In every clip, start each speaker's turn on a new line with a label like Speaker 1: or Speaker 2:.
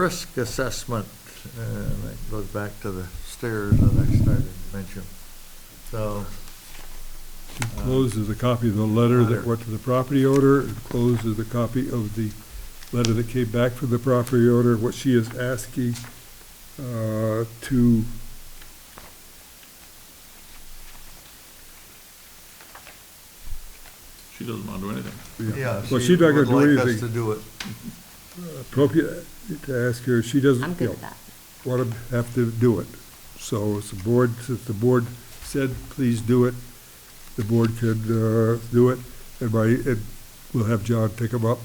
Speaker 1: risk assessment, and that goes back to the stairs that I started to mention. So,
Speaker 2: Enclosed is a copy of the letter
Speaker 1: Letter.
Speaker 2: that went to the property owner. Enclosed is a copy of the letter that came back from the property owner. What she is asking uh, to
Speaker 3: She doesn't want to do anything.
Speaker 1: yeah, she
Speaker 2: Well, she's not gonna
Speaker 1: would
Speaker 2: do
Speaker 1: like us to
Speaker 2: anything.
Speaker 1: do it.
Speaker 2: appropriate, to ask her, she doesn't,
Speaker 4: I'm
Speaker 2: you
Speaker 4: good
Speaker 2: know,
Speaker 4: with that.
Speaker 2: want to have to do it. So it's the board, since the board said, please do it, the board could uh, do it, and my, and we'll have John pick him up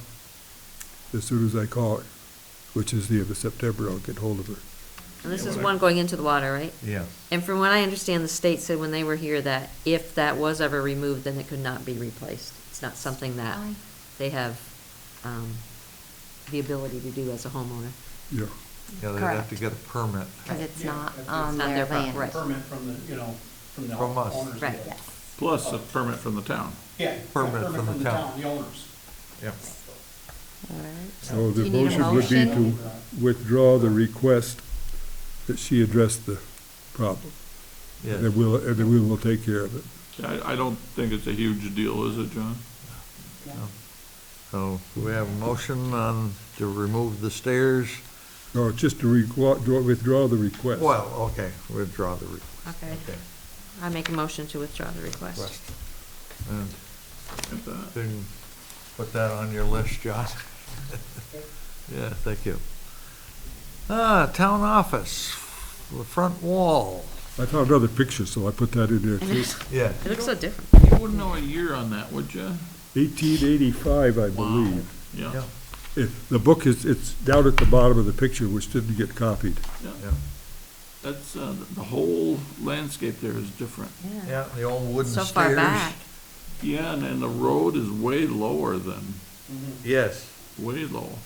Speaker 2: as soon as I call her, which is the end of September, I'll get hold of her.
Speaker 4: And this is one going into the water, right?
Speaker 1: Yeah.
Speaker 4: And from what I understand, the state said when they were here that if that was ever removed, then it could not be replaced. It's not something that they have, um, the ability to do as a homeowner.
Speaker 2: Yeah,
Speaker 1: Yeah, they'd have to
Speaker 5: Correct.
Speaker 1: get a permit.
Speaker 5: Because it's
Speaker 6: Yeah,
Speaker 5: not
Speaker 6: that's-
Speaker 5: on
Speaker 4: It's not
Speaker 5: their
Speaker 4: their pro-
Speaker 5: land.
Speaker 4: right.
Speaker 6: Permit from the, you know, from the
Speaker 1: From us.
Speaker 6: owners.
Speaker 4: Right.
Speaker 5: Yes.
Speaker 3: Plus a permit from the town.
Speaker 6: Yeah. a
Speaker 1: Permit from the town.
Speaker 6: The owners.
Speaker 1: Yeah.
Speaker 5: All right.
Speaker 2: so
Speaker 5: Do
Speaker 2: the
Speaker 5: you need a
Speaker 2: motion would be to
Speaker 5: motion?
Speaker 2: withdraw the request that she addressed the problem, and then
Speaker 1: Yeah,
Speaker 2: we'll, and then we will take care of it.
Speaker 3: I, I don't think it's a huge deal, is it, John?
Speaker 1: so we have a motion on to remove the stairs.
Speaker 2: No, just to requ- draw- withdraw the request.
Speaker 1: Well, okay, withdraw the request.
Speaker 4: Okay,
Speaker 1: Okay,
Speaker 4: I make a motion to withdraw the request.
Speaker 1: request. And
Speaker 3: If that-
Speaker 1: then put that on your list, Josh. Yeah, thank you. Ah, town office, the front wall.
Speaker 2: I found another picture, so I put that in there too.
Speaker 1: Yeah.
Speaker 4: It looks so different.
Speaker 3: You wouldn't know a year on that, would you?
Speaker 2: 1885, I believe.
Speaker 3: Yeah,
Speaker 2: It- The book is, it's down at the bottom of the picture, which didn't get copied.
Speaker 3: yeah. That's, uh, the- the whole landscape there is different.
Speaker 1: Yeah, the old wooden
Speaker 4: So
Speaker 1: stairs.
Speaker 4: far back.
Speaker 3: Yeah, and, and the road is way lower than,
Speaker 1: Yes.
Speaker 3: way low.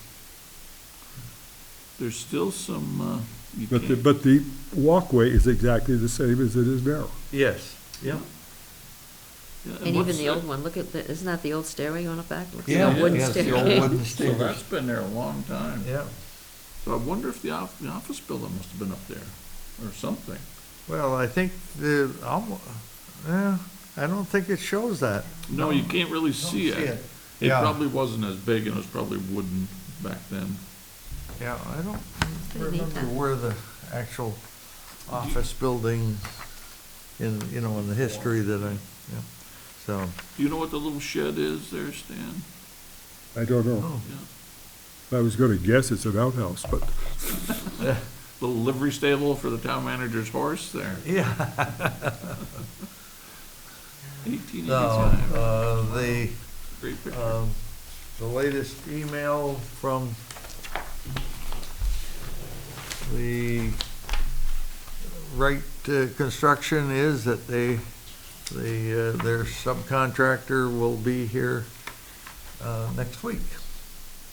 Speaker 3: There's still some, uh, you
Speaker 2: But the,
Speaker 3: can't-
Speaker 2: but the walkway is exactly the same as it is now.
Speaker 1: Yes. Yeah.
Speaker 3: Yeah,
Speaker 4: And even
Speaker 3: what's
Speaker 4: the
Speaker 3: that-
Speaker 4: old one, look at, the- isn't that the old stairway going up back? Looks like
Speaker 1: Yeah,
Speaker 4: a wooden
Speaker 1: yes, the old
Speaker 4: staircase.
Speaker 1: wooden
Speaker 3: So
Speaker 1: stairs.
Speaker 3: that's been there a long time.
Speaker 1: Yeah,
Speaker 3: So I wonder if the off, the office building must have been up there or something.
Speaker 1: well, I think the, almo- eh, I don't think it shows that.
Speaker 3: No, you can't really see
Speaker 1: see
Speaker 3: it.
Speaker 1: it.
Speaker 3: It
Speaker 1: Yeah.
Speaker 3: probably wasn't as big and it was probably wooden back then.
Speaker 1: Yeah, I don't
Speaker 4: pretty neat,
Speaker 1: remember
Speaker 4: huh?
Speaker 1: where the actual office building in, you know, in the history that I, yeah, so,
Speaker 3: Do you know what the little shed is there, Stan?
Speaker 2: I don't know.
Speaker 1: oh,
Speaker 3: Yeah,
Speaker 2: I was gonna guess it's an outhouse, but
Speaker 3: Little livery stable for the town manager's horse there,
Speaker 1: yeah.
Speaker 3: eighteen
Speaker 1: So,
Speaker 3: eighty-five,
Speaker 1: uh, the,
Speaker 3: great picture.
Speaker 1: um, the latest email from the Wright uh, Construction is that they, the, uh, their subcontractor will be here, uh, next week.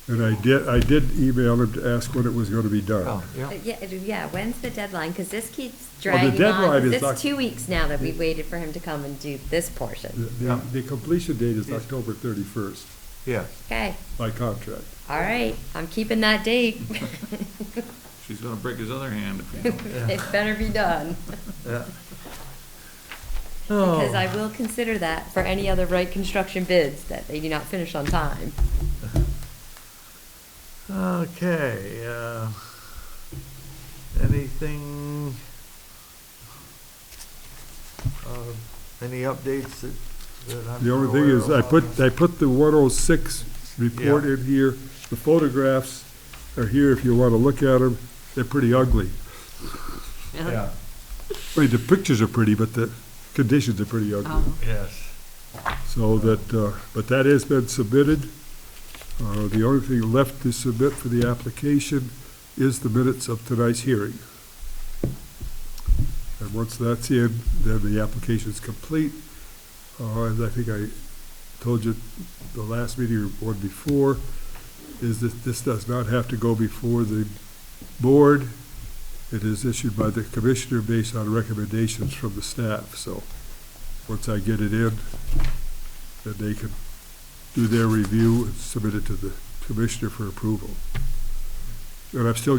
Speaker 2: And I did, I did email him to ask when it was gonna be done.
Speaker 1: Oh, yeah.
Speaker 5: Uh, Yeah, it- yeah, when's the deadline? Because this keeps
Speaker 2: Well, the
Speaker 5: dragging on.
Speaker 2: deadline
Speaker 5: 'cause
Speaker 2: is Oc-
Speaker 5: It's two weeks now that we've waited for him to come and do this portion.
Speaker 2: The- The, the completion date is
Speaker 1: Yes.
Speaker 2: October 31st
Speaker 1: Yeah,
Speaker 5: Okay,
Speaker 2: by contract.
Speaker 5: all right, I'm keeping that date.
Speaker 3: She's gonna break his other hand if he don't.
Speaker 5: It better be done,
Speaker 1: yeah.
Speaker 2: Oh.
Speaker 5: because I will consider that for any other right construction bids that they do not finish on time.
Speaker 1: Oh, Okay, uh, anything? uh, Any updates that, that I'm.
Speaker 2: The only thing is, I put, I put the one oh six report
Speaker 1: Yeah.
Speaker 2: in here, the photographs are here if you wanna look at them, they're pretty ugly.
Speaker 1: Yeah,
Speaker 2: I mean, the pictures are pretty, but the conditions are pretty ugly.
Speaker 4: Oh,
Speaker 1: yes,
Speaker 2: So that, uh, but that has been submitted. Uh, The only thing left to submit for the application is the minutes of tonight's hearing. And once that's in, then the application's complete. Uh, And I think I told you the last meeting or one before, is that this does not have to go before the board. It is issued by the commissioner based on recommendations from the staff. So once I get it in, that they can do their review and submit it to the commissioner for approval. And I'm still